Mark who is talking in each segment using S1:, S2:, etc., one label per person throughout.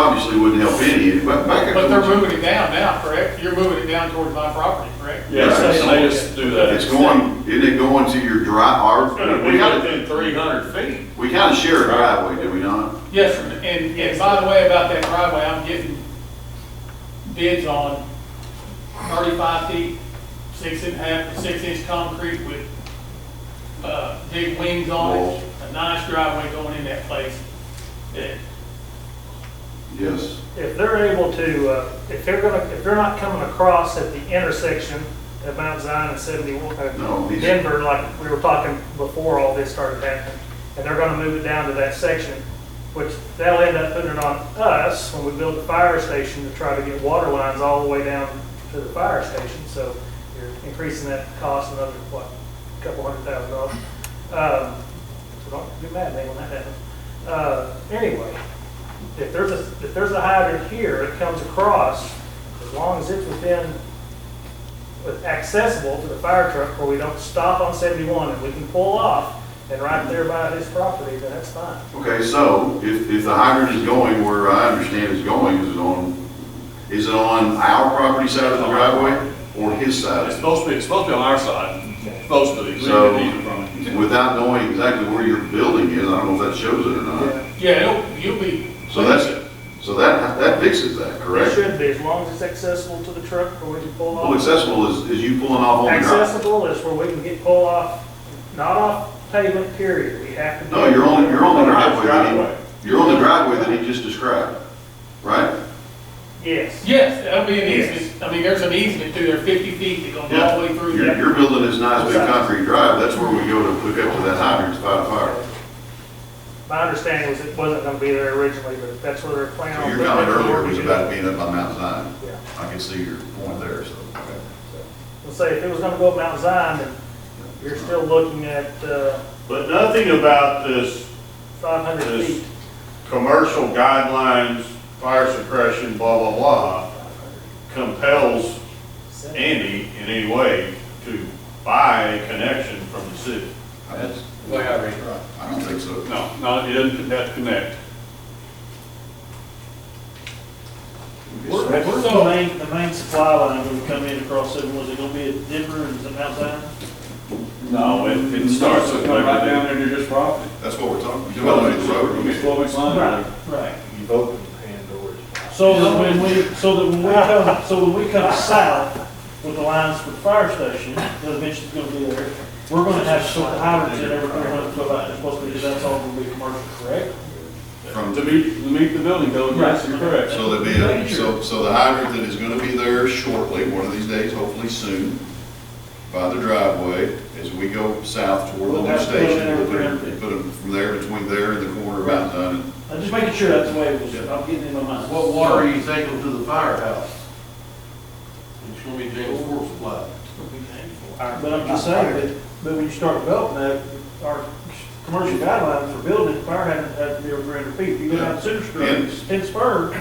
S1: obviously wouldn't help any, but back.
S2: But they're moving it down now, correct? You're moving it down towards my property, correct?
S3: Yes, they made us do that.
S1: It's going, isn't it going to your drive, our,
S3: It's gonna
S1: we
S3: be
S1: gotta,
S3: within three hundred feet.
S1: we kinda share a driveway, do we not?
S2: Yes, sir. and, and by the way, about that driveway, I'm getting bids on thirty-five feet, six and a half, six inch concrete with, uh, big wings on
S1: Walls.
S2: it. A nice driveway going in that place. That
S1: Yes,
S4: If they're able to, uh, if they're gonna, if they're not coming across at the intersection of Mount Zion and seventy-one,
S1: No,
S4: uh,
S1: he's-
S4: Denver, like we were talking before all this started happening, and they're gonna move it down to that section, which they'll end up putting it on us when we build the fire station to try to get water lines all the way down to the fire station, so you're increasing that cost another, what, couple hundred thousand dollars. Um, so don't be mad at me when that happens. Uh, anyway, if there's a, if there's a hydrant here, it comes across, as long as it's within, with accessible to the fire truck where we don't stop on seventy-one and we can pull off and right there by his property, then that's fine.
S1: okay, so if, if the hydrant is going where I understand it's going, is it on, is it on our property side of the driveway or his side?
S3: It's supposed to be, it's supposed to be on our side, It's supposed to be. We
S1: So-
S3: didn't need it from it.
S1: Without knowing exactly where your building is, I don't know if that shows it or not.
S4: Yeah,
S2: Yeah, it'll, you'll be.
S1: So that's, so that, that fixes that,
S4: It
S1: correct?
S4: should be, as long as it's accessible to the truck where we can pull
S1: Well,
S4: off.
S1: accessible is, is you pulling off on the drive.
S4: Accessible is where we can get pull off, not off pavement period, we have to.
S1: No, you're on, you're on the driveway,
S3: Driveway.
S1: that he- you're on the driveway that he just described, right?
S4: Yes,
S2: Yes, that'll be an
S4: Yes.
S2: easement. I mean, there's an easement through there, fifty feet that goes all the way through.
S1: You're,
S2: there.
S1: you're building this nice big concrete drive, that's where we go to hook up to that hydrant to fight a fire.
S4: my understanding was it wasn't gonna be there originally, but that's where they're planning
S1: So
S4: on.
S1: your
S4: putting
S1: comment
S4: it before
S1: earlier
S4: we
S1: was
S4: do
S1: about
S4: that.
S1: being up on Mount Zion.
S4: Yeah.
S1: I can see your point there, so. okay.
S4: Let's say if it was gonna go up Mount Zion, then you're still looking at, uh,
S5: But nothing about this
S4: five hundred
S5: Yes.
S4: feet.
S5: commercial guidelines, fire suppression, blah, blah, blah, compels Andy in any way to buy a connection from the city.
S3: That's the way I read it.
S1: I don't think so.
S3: No, no, it doesn't have to connect.
S6: Where- Where's the main, the main supply line going to come in across seven, was it going to be at Denver and some outside?
S3: No, it, it starts with.
S7: Come right down into this property.
S1: That's what we're talking, you're building the road.
S7: It's what it's on.
S6: right.
S5: You've opened Pandora's
S6: So that when we, so that when we come, so when we come south with the lines for the fire station, that eventually going to be there, we're going to have sort of hydrants in every three hundred foot line, it's supposed to be, that's all going to be commercial, correct?
S1: From-
S3: To meet, to meet the building code, yes, you're correct.
S1: So there'll be, a- so, so the hydrant that is gonna be there shortly, one of these days, hopefully soon, by the driveway, as we go south toward the
S6: We'll
S1: lift
S6: have to put it
S1: station,
S6: in
S1: we'll
S6: there
S1: put
S6: for
S1: it, put it from there, between there and the corner of Mount Zion. and-
S6: I'm just making sure that's the way it was, I'm getting in my mind.
S8: What water are you taking to the firehouse? It's gonna be James Ford supply.
S6: But I'm just saying, that, but when you start developing that, our commercial guidelines for building, fire hydrants have to be over three hundred feet. If You go down Center Street,
S1: Yeah.
S6: in Spur,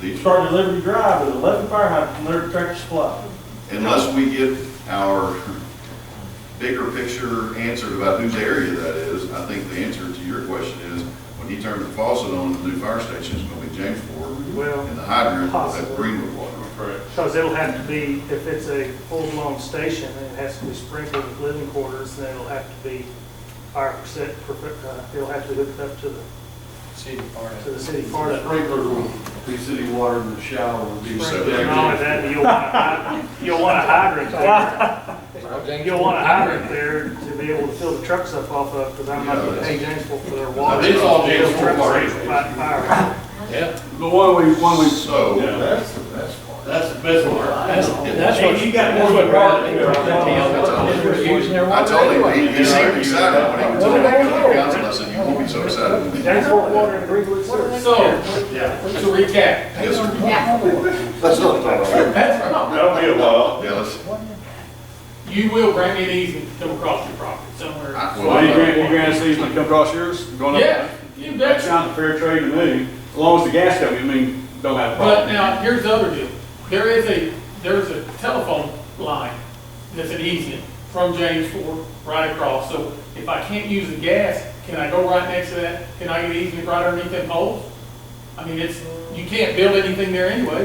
S1: These-
S6: start at Liberty Drive with eleven fire hydrants, and they're Tractor Supply.
S1: Unless we get our bigger picture answered about whose area that is, I think the answer to your question is, when he turns the faucet on, the new fire station is gonna be James Ford,
S4: Well,
S1: and the hydrant will have
S4: Possible.
S1: Greenwood water.
S3: Correct.
S4: because it'll have to be, if it's a full-blown station, then it has to be sprinkled with living quarters, then it'll have to be fire percent, per- uh, it'll have to be hooked up to the,
S8: City fire.
S4: to the city part of
S8: The
S4: it.
S8: sprinkler will be city water and the shower will be.
S1: So-
S4: And all of that, you'll want, a hy- you'll want a hydrant there. You'll want a hydrant there to be able to fill the trucks up off of, because I'm not gonna pay James Fork for their water.
S8: It's all James Fork water.
S4: By fire.
S3: The one we, one we.
S1: So,
S3: Yeah.
S7: That's the best part.
S8: That's the best part.
S6: That's, that's
S8: what-
S6: You got more than
S1: I told him, he, he seemed excited when he was told about the council, I said, you won't be so excited.
S4: James Fork water and Greenwood service.
S2: So, to recap,
S1: Yes, sir.
S7: That's not the
S2: that's not
S5: That'll be a while.
S1: Yeah, let's,
S2: You will grant me an easement to come across your property somewhere.
S1: I- well,
S3: Well, you grant, you
S1: I-
S3: grant easement come across yours, going up.
S2: Yeah, you
S3: That
S2: bet.
S3: sounds fair trade to me, as long as the gas company, I mean, don't have a
S2: But
S3: problem.
S2: now, here's the other deal. There is a, there's a telephone line that's an easement from James Ford right across. So if I can't use the gas, can I go right next to that? Can I get easement right underneath them poles? I mean, it's, you can't build anything there anyway.